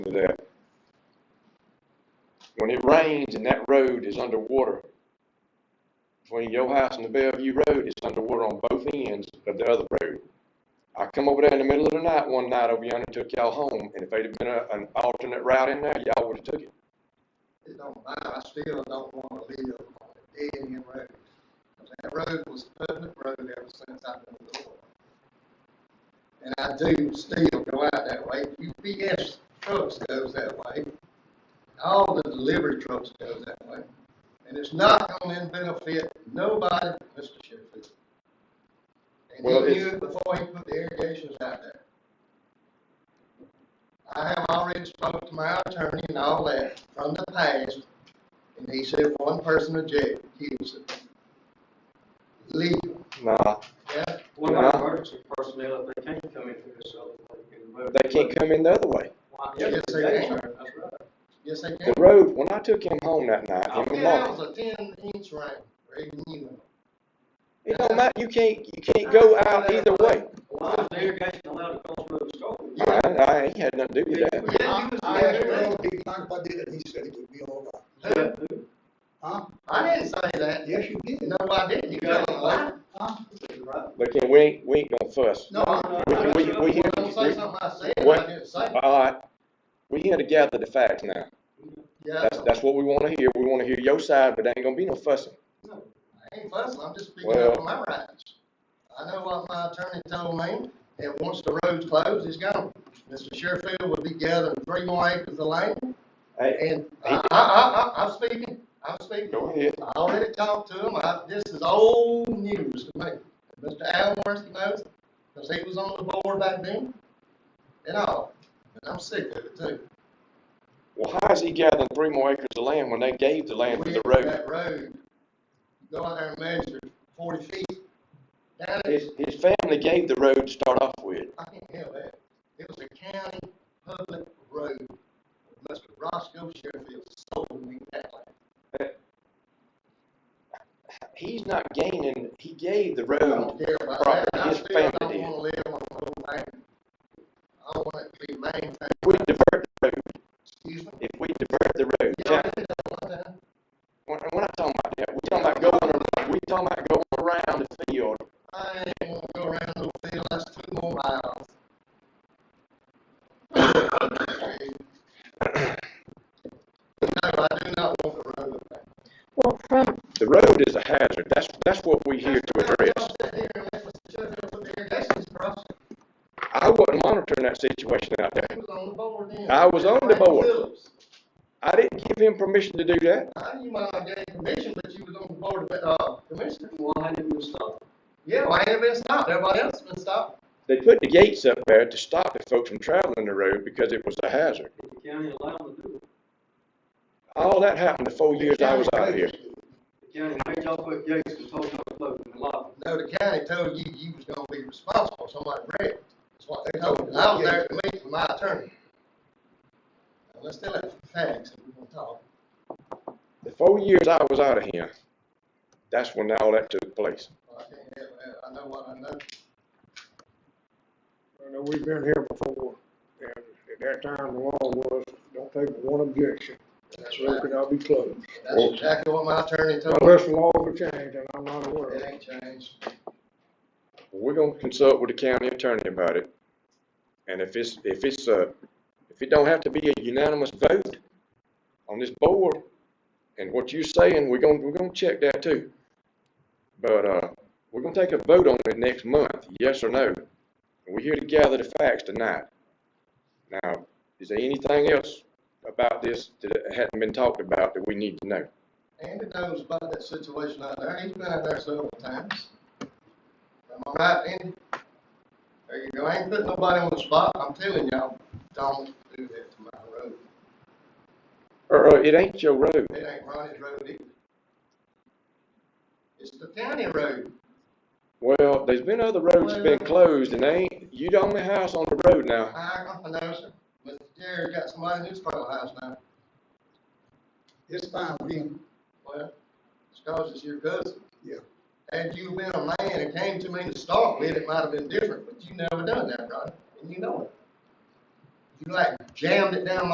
to that. When it rains and that road is underwater, between your house and the Bellevue Road, it's underwater on both ends of the other road. I come over there in the middle of the night one night over yonder and took y'all home, and if they'd have been a, an alternate route in there, y'all would have took it. It don't matter, I still don't wanna live on a dead end road. 'Cause That road was a public road ever since I've been a little. And I do still go out that way, UPS trucks goes that way, all the delivery trucks goes that way. And it's not gonna benefit nobody, Mr. Sheffield. And he Well, knew it's- it before he put the irrigations out there. I have already spoke to my attorney and all that from the past, and he said one person objected, he was legal, Nah, yeah, What about emergency personnel, if they can't come in through this other way? can move- they can't come in the other way. Why, Yes, yeah, they that's can. right, that's right. yes, they The can. road, when I took him home that night, him and Yeah, it Mark, was a ten inch rain, rain, you know. it don't matter, you can't, you can't go out either way. Why is the irrigation allowed to cross through the store? I, I ain't had nothing to do with that. Yeah, you was I there. asked Ronald D. Clark about that, and he said it would be all right. Huh? I didn't say that, Yes, you did. no, I didn't, you got a lie. Huh? But then we ain't, we ain't gonna fuss. No, I, We, I we, we when here, I say something I said, I What? didn't say. it. all right, we here to gather the facts now. Yeah, That's, that's what we wanna hear. We wanna hear your side, but there ain't gonna be no fussing. I ain't fussing, I'm just speaking Well- up for my rights. I know what my attorney told me, and once the road's closed, it's gone. Mr. Sherfield will be gathering three more acres of land, Hey, and I, I, I, I, I'm speaking, I'm speaking. go ahead. I already talked to him, I, this is old news to me. Mr. Al Morrison knows, because he was on the board back then, and all, and I'm sick of it too. Well, how is he gathering three more acres of land when they gave the land for the road? That road, go out there and measure forty feet, down it, His, his family gave the road to start off with. I can't handle that. It was a county public road. Mr. Roscoe Sheffield sold me that land. He's not gaining, he gave the I road. don't care about that. Property I his still family don't did. wanna live on the old land. I want it to be maintained, We divert the road, excuse me. if we divert the road. Yeah, I did that one time. We're, we're not talking about that. We're talking about going, ar- we're talking about going around the field. I ain't gonna go around no field, that's two more miles. No, I do not want the road back. Well, from, The road is a hazard. That's, that's what we here to address. Sit here and let Mr. Sheffield put the irrigations across. I wasn't monitoring that situation out there. He was on the board then. I was on the Frank board. Phillips. I didn't give him permission to do that. I, you might not get commission, but you was on the board, but, uh, commissioner. Why didn't we stop? Yeah, why ain't it been stopped? Everybody else has been stopped. They put the gates up there to stop the folks from traveling the road because it was a hazard. Did the county allow them to do it? All that happened the four years I was out here. The county made y'all put gates and told y'all to close the lot. No, the county told you you was gonna be responsible, somebody wrecked. That's what they told me. And I was there to meet with my attorney. Now, let's tell that facts, if we gonna talk. The four years I was out of here, that's when all that took place. Well, I can't have that. I know what I know. I know we've been here before, and at that time, the law was, don't take one objection, That's so it right. could all be closed. That's exactly what my attorney told me. Unless the laws have changed, and I'm not aware of It it. ain't changed. We're gonna consult with the county attorney about it. And if it's, if it's, uh, if it don't have to be a unanimous vote on this board, and what you're saying, we're gonna, we're gonna check that too. But, uh, we're gonna take a vote on it next month, yes or no. And We're here to gather the facts tonight. Now, is there anything else about this that hadn't been talked about that we need to know? Andy knows about that situation out there. He's been out there several times. Am I right, Andy? There you go. I ain't putting nobody on the spot. I'm telling y'all, don't do that to my road. Or, uh, it ain't your road. It ain't Ronnie's road either. It's the county road. Well, there's been other roads that's been closed and they ain't, you the only house on the road now. I, I know, sir. Mr. Jerry got somebody in his front of the house now. It's fine with him. Well, it's cause it's your cousin. Yeah. Had you been a man and came to me to start with, it might have been different, but you never done that, Ronnie, and you know it. You like jammed it down my